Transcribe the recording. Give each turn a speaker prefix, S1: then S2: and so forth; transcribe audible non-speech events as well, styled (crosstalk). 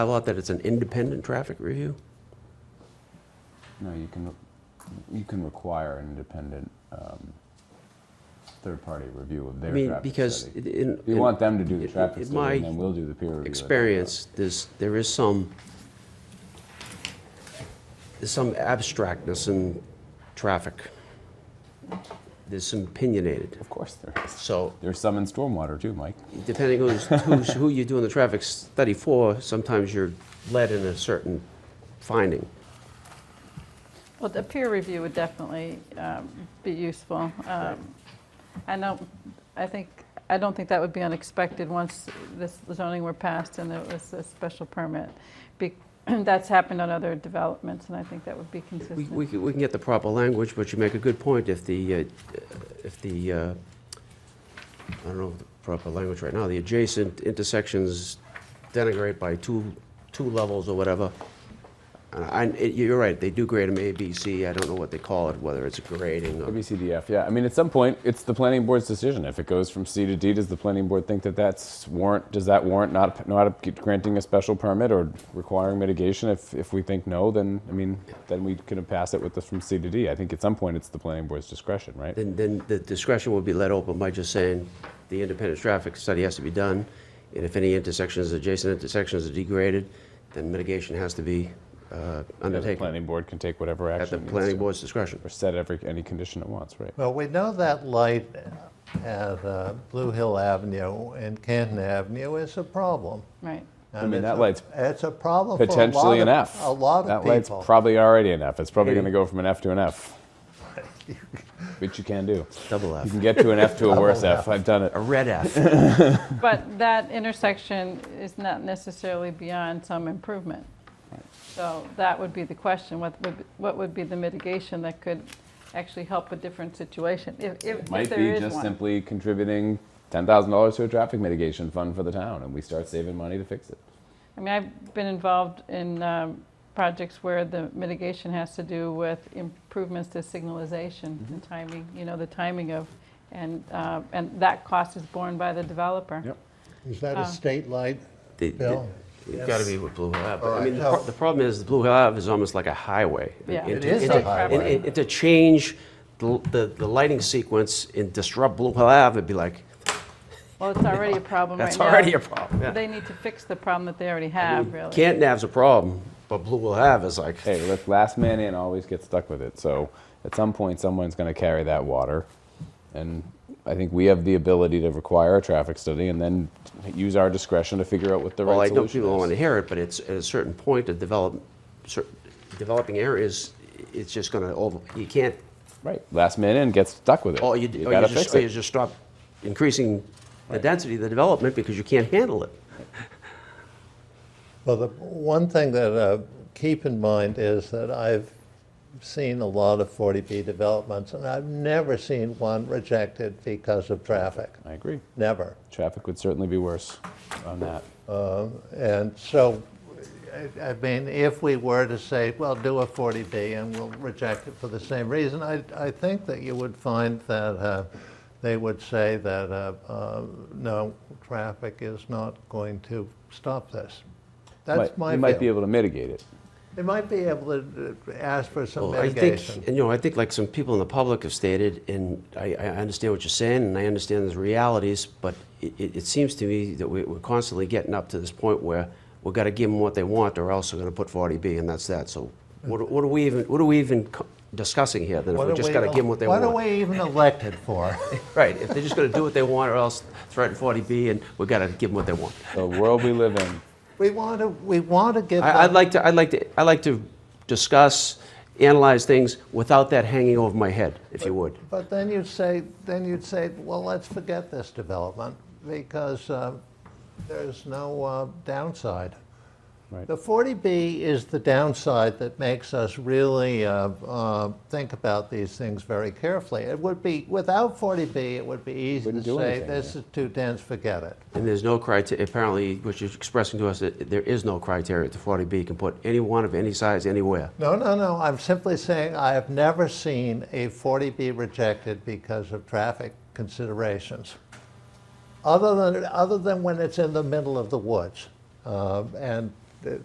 S1: I thought that it's an independent traffic review?
S2: No, you can, you can require an independent, um, third-party review of
S1: I
S2: their
S1: mean,
S2: traffic
S1: because
S2: study.
S1: it- in.
S2: You want them to do
S1: in-
S2: the traffic
S1: in
S2: study, and
S1: my
S2: then we'll do the peer review.
S1: Experience, there's, there is some, there's some abstractness in traffic. There's some opinionated.
S2: Of course there is.
S1: So
S2: There's some in stormwater too, Mike.
S1: depending who's, who's, who you're doing the traffic study for, sometimes you're led in a certain finding.
S3: Well, the peer review would definitely um, be useful. Um, I know, I think, I don't think that would be unexpected once this zoning were passed and it was a special permit. Be- (clears throat) That's happened on other developments, and I think that would be
S1: We, we
S3: consistent.
S1: can, we can get the proper language, but you make a good point, if the, uh, if the, uh, I don't know the proper language right now, the adjacent intersections denigrate by two, two levels or whatever. uh, And I, it- you're right, they do grade them A, B, C, I don't know what they call it, whether it's a grading or,
S2: ABCDF, yeah. I mean, at some point, it's the planning board's decision. If it goes from C to D, does the planning board think that that's warrant, does that warrant not, not granting a special permit or requiring mitigation? If, if we think no, then, I mean, then we can pass it with this from C to D. I think at some point, it's the planning board's discretion, right?
S1: then, then the discretion will be let open by just saying, the independent traffic study has to be done, and if any intersections, adjacent intersections are degraded, then mitigation has to be uh,
S2: And the
S1: undertaken.
S2: planning board can take whatever
S1: At
S2: action
S1: the
S2: it needs
S1: planning
S2: to,
S1: board's discretion.
S2: Or set every, any condition it wants, right?
S4: Well, we know that light at uh, Blue Hill Avenue and Canton Avenue is a problem.
S3: Right.
S4: And
S2: mean,
S4: it's
S2: that
S4: a-
S2: light's
S4: It's a problem for a lot of...
S2: Potentially an F.
S4: A lot
S2: That
S4: of
S2: light's
S4: people.
S2: probably already an F. It's probably
S1: Hey.
S2: going to go from an F to an
S4: (laughs)
S2: F. Which you can do.
S1: Double
S2: You
S1: F.
S2: can get to an F to a worse F. I've done it.
S1: (laughs) A red F.
S3: But that intersection is not necessarily beyond some improvement. So that would be the question, what would, what would be the mitigation that could actually help a different situation, if, if- if
S2: Might
S3: there
S2: be
S3: is
S2: just
S3: one?
S2: simply contributing ten thousand dollars to a traffic mitigation fund for the town, and we start saving money to fix it.
S3: I mean, I've been involved in um, projects where the mitigation has to do with improvements to signalization
S1: Mm-hmm.
S3: and timing, you know, the timing of, and, uh, and that cost is borne by the developer.
S2: Yep.
S4: Is that a state light,
S1: They- they-
S4: Bill?
S1: It's got to be with Blue Hill Ave.
S4: All
S1: I mean,
S4: right,
S1: the pro-
S4: so-
S1: the problem is, the Blue Hill Ave is almost like a highway.
S3: Yeah.
S1: And
S3: It
S1: to-
S4: is
S1: and
S4: a
S1: to-
S4: highway.
S1: and- and- and to change the the the lighting sequence and disrupt Blue Hill Ave, it'd be like,
S3: Well, it's already a problem right now.
S1: that's already a problem. yeah.
S3: Oh They need to fix the problem that they already have, really.
S1: Canton Ave's a problem, but Blue Hill Ave is like,
S2: Hey, look, last man in always gets stuck with it. So at some point, someone's going to carry that water, and I think we have the ability to require a traffic study and then use our discretion to figure out what the
S1: well, I
S2: right
S1: know
S2: solution
S1: people don't want to
S2: is.
S1: hear it, but it's, at a certain point, to develop, cer- developing areas, it's just going to, over. you can't,
S2: Right, last man in gets stuck with it.
S1: or Oh, you d- or you
S2: gotta
S1: just
S2: fix
S1: or you
S2: it.
S1: just stop increasing the density of the development because you can't handle it.
S4: Well, the one thing that uh, keep in mind is that I've seen a lot of 40B developments, and I've never seen one rejected because of traffic.
S2: I agree.
S4: Never.
S2: Traffic would certainly be worse on that.
S4: And so, I- I mean, if we were to say, well, do a 40B and we'll reject it for the same reason, I, I think that you would find that uh, they would say that, uh, uh, no, traffic is not going to stop this. That's
S2: Might-
S4: my
S2: you might be
S4: view.
S2: able to mitigate it.
S4: They might be able to uh, ask for some
S1: Well, I
S4: mitigation.
S1: think, and, you know, I think like some people in the public have stated, and I, I understand what you're saying, and I understand the realities, but it, it, it seems to me that we, we're constantly getting up to this point where we've got to give them what they want, or else we're going to put 40B, and that's that. So what, are- what are we even, what are we even co- discussing here? Then if
S4: What
S1: we
S4: are
S1: just
S4: we
S1: got to
S4: el-
S1: give them what they
S4: What
S1: want,
S4: are we even elected
S1: (laughs)
S4: for?
S1: right? If they're just going to do what they want, or else threaten 40B, and we have got to give them what they want.
S2: The world we live in.
S4: We want to, we want to give them.
S1: I, I'd like to, I'd like to, I like to discuss, analyze things without that hanging over my head, if you would.
S4: But then you'd say, then you'd say, well, let's forget this development because uh, there's no uh, downside.
S2: Right.
S4: The 40B is the downside that makes us really uh, uh, think about these things very carefully. It would be, without 40B, it would be easy to
S2: Wouldn't do
S4: say,
S2: anything,
S4: this is too dense, forget it.
S1: And there's no criteria, apparently, what you're expressing to us, that there is no criteria to 40B. You can put anyone of any size anywhere.
S4: No, no, no, I'm simply saying I have never seen a 40B rejected because of traffic considerations. Other than, other than when it's in the middle of the woods. Um, And